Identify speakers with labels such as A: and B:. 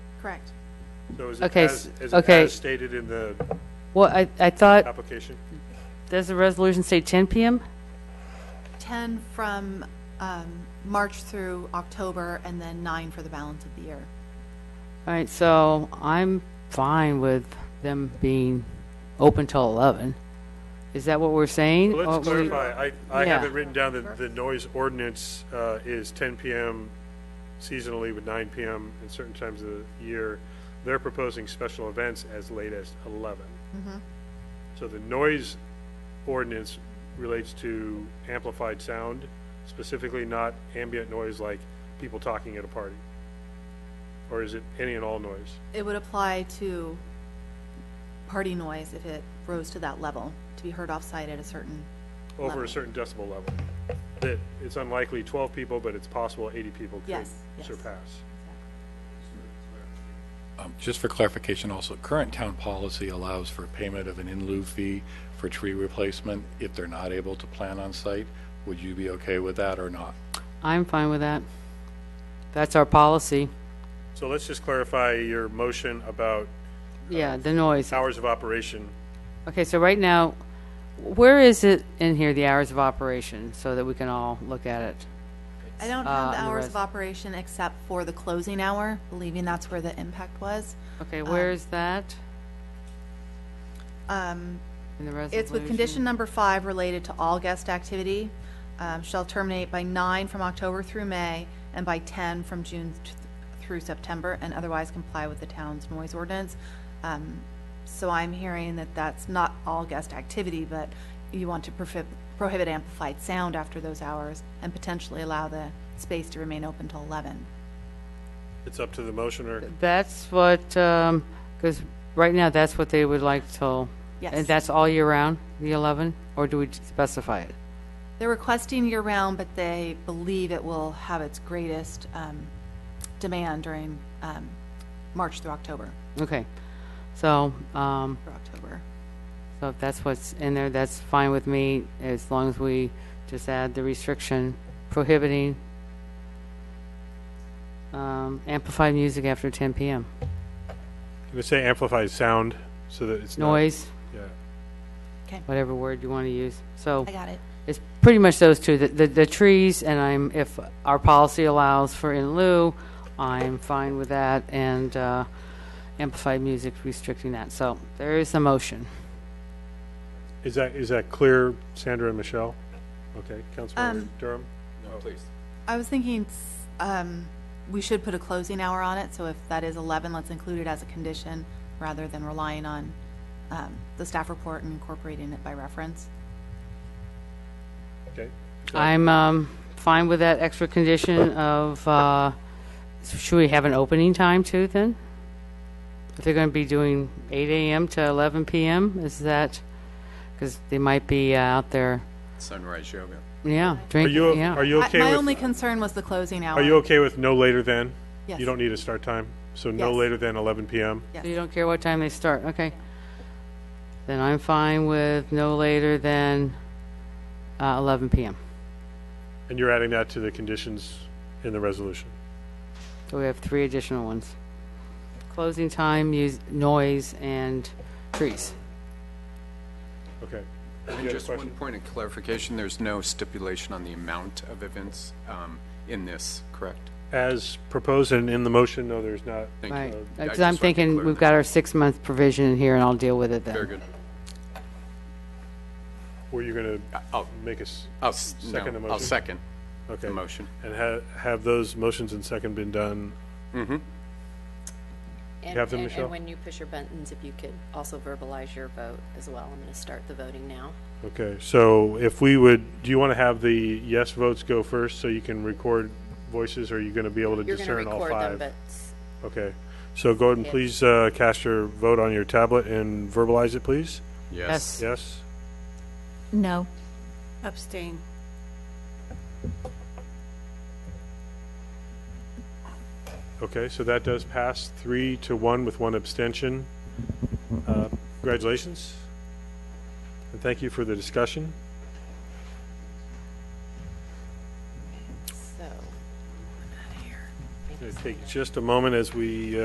A: Correct.
B: So is it
C: Okay,
B: as,
C: s-
B: is it
C: okay.
B: as stated in the
C: Well, I, I thought,
B: application?
C: does the resolution say 10 PM?
A: 10 from um, March through October, and then nine for the balance of the year.
C: All right, so I'm fine with them being open till 11. Is that what we're saying?
B: Well,
C: Or
B: Let's
C: Mm, oh, we-
B: clarify, I, I
C: Yeah.
B: have it written down that the noise ordinance uh, is 10 PM seasonally with 9 PM in certain times of the year. They're proposing special events as late as 11. So the noise ordinance relates to amplified sound, specifically not ambient noise like people talking at a party. Or is it any and all noise?
A: It would apply to party noise if it rose to that level, to be heard off-site at a certain,
B: over
A: Level.
B: a certain decibel level. That it's unlikely 12 people, but it's possible 80 people could
A: Yes, yes.
B: surpass.
D: Um, Just for clarification also, current town policy allows for payment of an in lieu fee for tree replacement if they're not able to plant on site. Would you be okay with that or not?
C: I'm fine with that. That's our policy.
B: So let's just clarify your motion about Uh,
C: Yeah, the noise.
B: hours of operation.
C: Okay, so right now, where is it in here, the hours of operation, so that we can all look at it?
A: I don't have
C: Uh,
A: the
C: and the
A: hours
C: res-
A: of operation except for the closing hour, believing that's where the impact was.
C: Okay, where is that
A: Um,
C: in the resolution?
A: It's with condition number five related to all guest activity, um, shall terminate by nine from October through May and by ten from June th- through September, and otherwise comply with the town's noise ordinance. Um, So I'm hearing that that's not all guest activity, but you want to prohibit, prohibit amplified sound after those hours and potentially allow the space to remain open till eleven.
B: It's up to the motioner.
C: That's what, because right now, that's what they would like till.
A: Yes.
C: And that's all year round, the 11? Or do we specify it?
A: They're requesting year-round, but they believe it will have its greatest um, demand during um, March through October,
C: Okay. So, um,
A: through October.
C: so if that's what's in there, that's fine with me, as long as we just add the restriction prohibiting um, amplified music after 10 PM.
B: Can we say amplified sound so that it's not?
C: Noise,
B: Yeah.
C: whatever word you want to use. So
A: I got it.
C: it's pretty much those two, the, the, the trees, and I'm, if our policy allows for in lieu, I'm fine with that, and, uh, amplified music restricting that. So there is a motion.
B: Is that, is that clear, Sandra and Michelle? Okay,
A: Um,
B: Councilmember Durham?
A: I was thinking s- um, we should put a closing hour on it, so if that is 11, let's include it as a condition rather than relying on um, the staff report and incorporating it by reference.
B: Okay.
C: I'm um, fine with that extra condition of, uh, should we have an opening time too, then? If they're going to be doing 8 AM to 11 PM, is that, because they might be uh, out there,
E: Sunrise Yoga.
C: yeah,
B: Are
C: drinking,
B: you,
C: yeah.
B: are you
A: I-
B: okay
A: My
B: with?
A: only concern was the closing hour.
B: Are you okay with no later than?
A: Yes.
B: You don't need a start time, so no
A: Yes.
B: later than 11 PM?
A: Yes.
C: So you don't care what time they start, okay. Then I'm fine with no later than uh, 11 PM.
B: And you're adding that to the conditions in the resolution?
C: So we have three additional ones. Closing time, mus- noise, and trees.
B: Okay.
E: And just one point of clarification, there's no stipulation on the amount of events um, in this, correct?
B: As proposed and in the motion, no, there's not.
E: Thank you.
C: Right,
E: I
C: because
E: just
C: I'm
E: wanted to
C: thinking
E: clear
C: we've
E: that.
C: got our six-month provision in here, and I'll deal with it then.
E: Very good.
B: Were you going to
E: I'll-
B: make us,
E: I'll, s- no,
B: Second the
E: I'll
B: motion.
E: second
B: okay?
E: oh. the motion.
B: And ha- have those motions and second been done?
F: And-
B: have them,
F: and-
B: Michelle?
F: And when you push your buttons, if you could also verbalize your vote as well. I'm going to start the voting now.
B: Okay, so if we would, do you want to have the yes votes go first so you can record voices? Or are you going to be able to
F: You're going to
B: discern all five?
F: record them, but s-
B: Okay, so go ahead and please uh, cast your vote on your tablet and verbalize it, please.
E: Yes.
C: Yes,
B: Yes?
A: No.
G: Abstain.
B: Okay, so that does pass three to one with one abstention. Uh, Congratulations. And thank you for the discussion.
F: so.
B: It'll take just a moment as we uh,